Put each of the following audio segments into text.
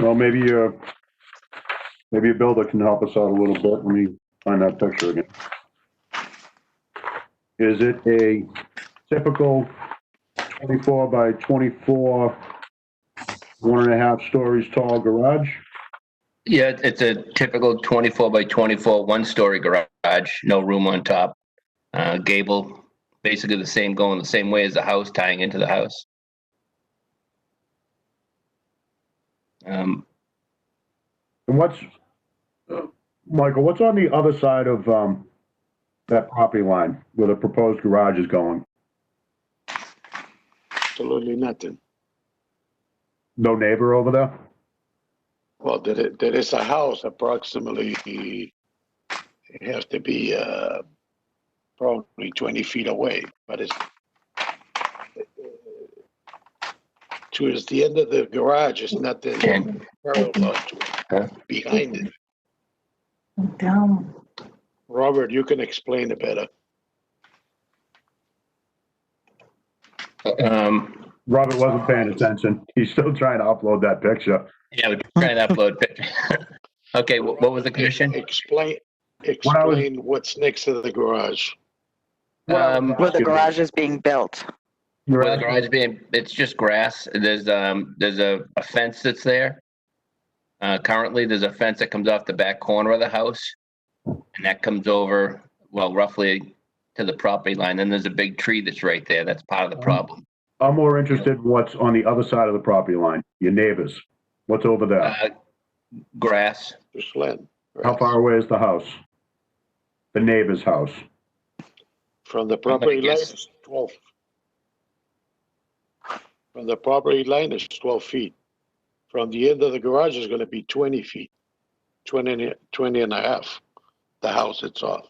Well, maybe, uh, maybe a builder can help us out a little bit. Let me find that picture again. Is it a typical 24 by 24, one and a half stories tall garage? Yeah, it's a typical 24 by 24, one-story garage, no room on top. Uh, Gable, basically the same, going the same way as the house, tying into the house. Um, And what's, uh, Michael, what's on the other side of, um, that property line where the proposed garage is going? Absolutely nothing. No neighbor over there? Well, there, i- there is a house approximately, it has to be, uh, probably twenty feet away, but it's towards the end of the garage, it's nothing And- parallel to Huh? it, behind it. Down. Robert, you can explain it better. um, Robert wasn't paying attention. He's still trying to upload that picture. Yeah, we're trying to upload. picture. Okay, wh- what was the question? Explain, When I was- explain what's next to the garage. Um, Where Excuse the me. garage is being built. You're Well, the right. garage being, it's just grass. There's, um, there's a, a fence that's there. Uh, currently, there's a fence that comes off the back corner of the house. And that comes over, well, roughly to the property line. Then there's a big tree that's right there. That's part of the problem. I'm more interested in what's on the other side of the property line, your neighbors. What's over there? Uh, grass, Just land. How far away is the house? The neighbor's house. From the property line guess- is twelve. From the property line is twelve feet. From the end of the garage is gonna be twenty feet, 20 and a- 20 and a half, the house itself.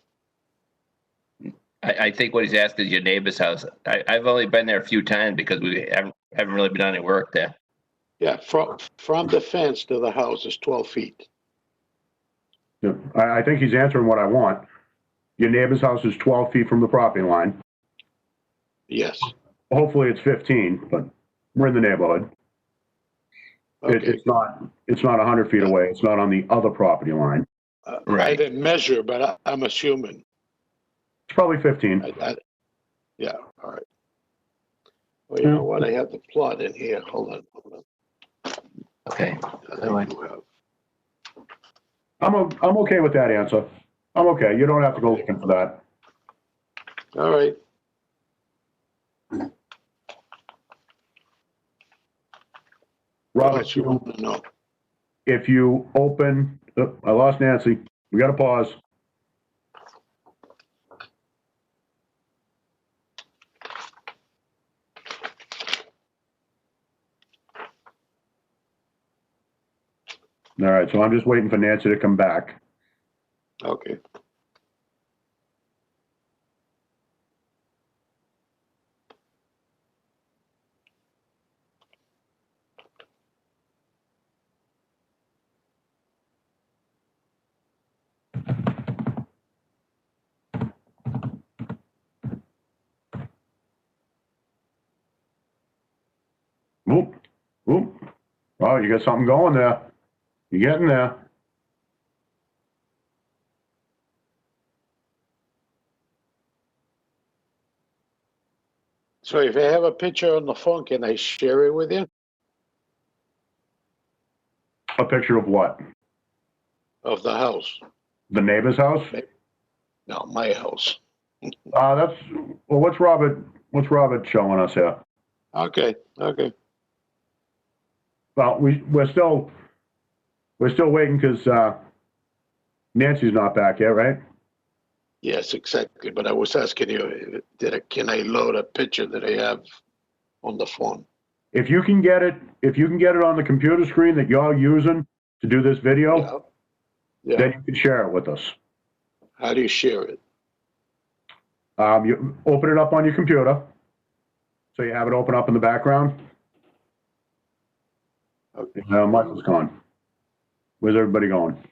I, I think what he's asked is your neighbor's house. I, I've only been there a few times because we haven't, haven't really been on any work there. Yeah, from, from the fence to the house is twelve feet. Yeah, I, I think he's answering what I want. Your neighbor's house is 12 feet from the property line. Yes, Hopefully it's 15, but we're in the neighborhood. It, okay. it's not, it's not 100 feet away. It's not on the other property line. Uh, I Right. didn't measure, but I, I'm assuming. It's probably 15. I, I, yeah, all right. Well, you know what, I have the plot in here, hold on, hold on. Okay. I think you have- I'm, o- I'm okay with that answer. I'm okay. You don't have to go looking for that. All right. Robert, What you you- want to know? if you open, uh, I lost Nancy. We gotta pause. All right, so I'm just waiting for Nancy to come back. Okay. Oop, oop. Oh, you got something going there. You're getting there. So if I have a picture on the phone, can I share it with you? A picture of what? Of the house? The neighbor's house? No, my house. Uh, that's, well, what's Robert, what's Robert showing us here? Okay, okay. Well, we, we're still, we're still waiting because, uh, Nancy's not back yet, right? Yes, exactly. But I was asking you, did I, can I load a picture that I have on the phone? If you can get it, if you can get it on the computer screen that y'all using to do this video, Yeah. Yeah. then you can share it with us. How do you share it? Um, you, open it up on your computer. So you have it open up in the background. Okay. Uh, Michael's gone. Where's everybody going?